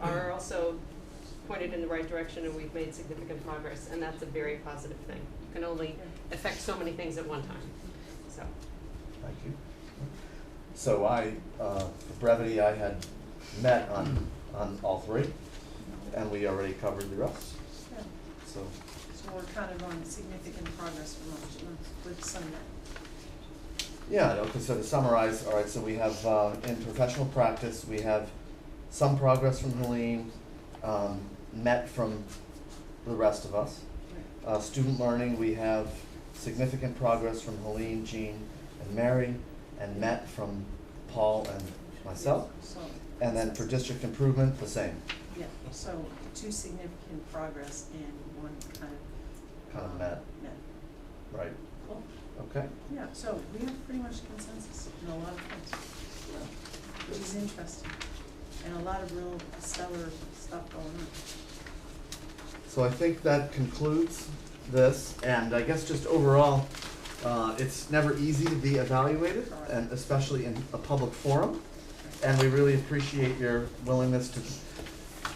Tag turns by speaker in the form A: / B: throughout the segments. A: are also pointed in the right direction and we've made significant progress, and that's a very positive thing. You can only affect so many things at one time, so.
B: Thank you. So I, uh, for brevity, I had met on, on all three, and we already covered the rest,
C: Yeah,
B: so.
C: So we're kind of on significant progress from last month with some, that-
B: Yeah, okay, so to summarize, all right, so we have, uh, in professional practice, we have some progress from Helene, um, met from the rest of us. Uh, student learning, we have significant progress from Helene, Jean, and Mary, and met from Paul and myself.
C: so.
B: And then for district improvement, the same,
C: Yeah, so two significant progress and one kind of.
B: Kind of
C: um,
B: met.
C: Met.
B: right,
C: Cool.
B: okay?
C: Yeah, so we have pretty much consensus in a lot of things, which is interesting. And a lot of real stellar stuff going on.
B: So I think that concludes this, and I guess just overall, uh, it's never easy to be evaluated, and especially in a public forum. And we really appreciate your willingness to,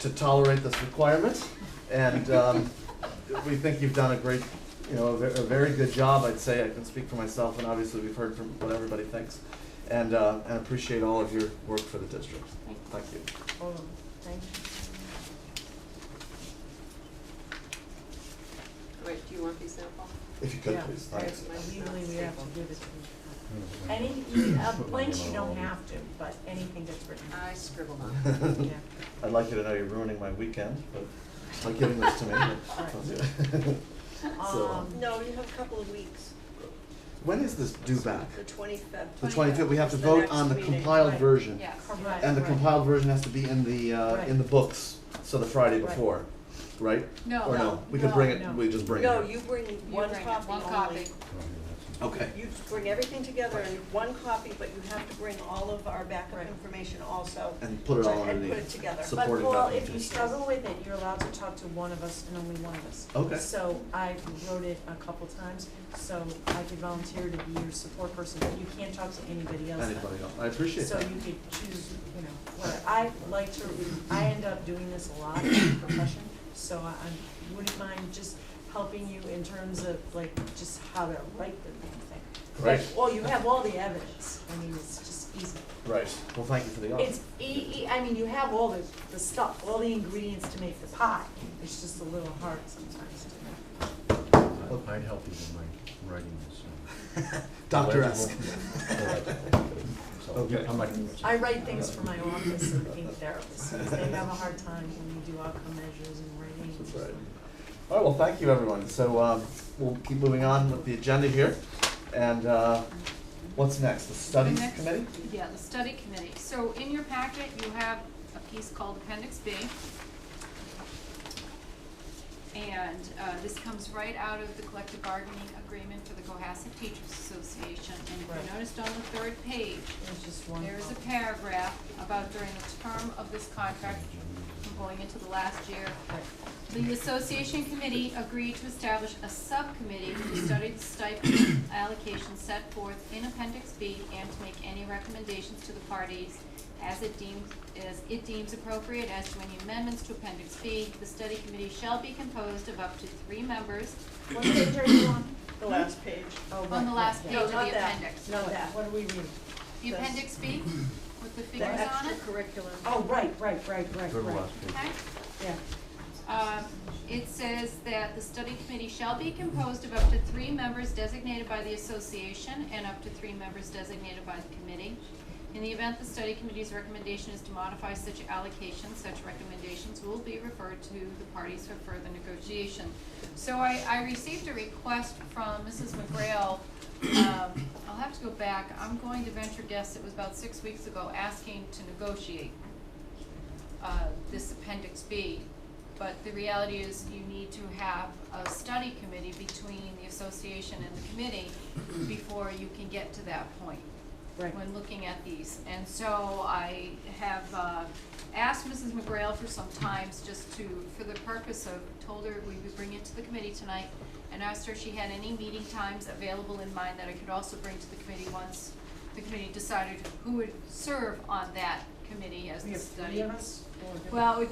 B: to tolerate this requirement. And, um, we think you've done a great, you know, a ve- a very good job, I'd say, I can speak for myself, and obviously we've heard from what everybody thinks. And, uh, and appreciate all of your work for the district. Thank you.
D: Oh,
C: All of them. Thank
A: Wait, do you want these now, Paul?
B: If you could, please, thanks.
E: Legally, we have to do this.
D: Any, uh, blanks you don't have to, but anything that's written.
A: I scribbled on.
B: I'd like you to know you're ruining my weekend, but by giving this to me. So,
D: Um,
F: No, you have a couple of weeks,
B: when is this due back?
F: the twenty-fifth.
B: The twenty-fifth, we have to vote on the compiled
D: right.
B: version.
D: Correct.
B: And the compiled version has to be in the, uh, in the books, so the Friday
D: Right.
B: before, right?
E: No.
B: Or no, we can bring it, we just bring it.
F: No, you bring one
E: bring it,
F: copy
E: one
F: only.
E: copy.
B: Okay,
F: You bring everything together in one copy, but you have to bring all of our backup
D: Right.
F: information also.
B: and put it all
F: and
B: underneath.
F: put it together.
B: So-
D: But
B: supporting
D: Paul,
B: document.
D: if you struggle with it, you're allowed to talk to one of us and only one of us.
B: Okay.
D: So I wrote it a couple times, so I could volunteer to be your support person, but you can't talk to anybody else. then.
B: Anybody else, I appreciate
D: So
B: that.
D: you could choose, you know, what, I like to, I end up doing this a lot in my profession, so I, I wouldn't mind just helping you in terms of like, just how to write the damn thing.
B: Right,
D: But, well, you have all the evidence, I mean, it's just easy.
B: right, well, thank you for the offer.
D: It's e- e- I mean, you have all the, the stuff, all the ingredients to make the pie, it's just a little hard sometimes to make.
G: I'd help you with my writing this. uh,
B: Doctor-esque. Okay.
G: So, I'm not gonna.
D: I write things for my office and pain therapists, because they have a hard time when you do outcome measures and writing.
B: That's right. All right, well, thank you, everyone. So um, we'll keep moving on with the agenda here. And uh, what's next? The studies
E: The next-
B: committee?
E: Yeah, the study committee. So in your packet, you have a piece called Appendix B. And uh, this comes right out of the collective bargaining agreement for the Cohasset Teachers Association. And if
D: Right.
E: you noticed on the third page,
D: It's just one.
E: there is a paragraph about during the term of this contract, from going into the last year, the association committee agreed to establish a subcommittee to study the stipend allocation set forth in appendix B and to make any recommendations to the parties as it deems, as it deems appropriate as to any amendments to appendix B. The study committee shall be composed of up to three members
D: What page are you on?
F: The last page.
D: Oh, right,
E: on the
D: right,
E: last
D: yeah.
E: page of the
F: No, not that.
E: appendix.
D: No, that, what are we reading?
E: The
F: This.
E: appendix B with the
F: The
E: figures on it,
F: extracurricular.
D: Oh, right, right, right, right,
G: Go to the
D: right,
G: last page.
E: okay?
D: yeah.
E: Um, it says that the study committee shall be composed of up to three members designated by the association and up to three members designated by the committee. In the event the study committee's recommendation is to modify such allocation, such recommendations will be referred to the parties for further negotiation. So I, I received a request from Mrs. McGrail, um, I'll have to go back, I'm going to venture guess it was about six weeks ago, asking to negotiate uh, this appendix B. But the reality is you need to have a study committee between the association and the committee before you can get to that point.
D: Right.
E: When looking at these. And so I have uh, asked Mrs. McGrail for some times just to, for the purpose of, told her we would bring it to the committee tonight and asked her if she had any meeting times available in mind that I could also bring to the committee once the committee decided who would serve on that committee as
D: We
E: the
D: have
E: study.
D: three of us, or?
E: Well, it would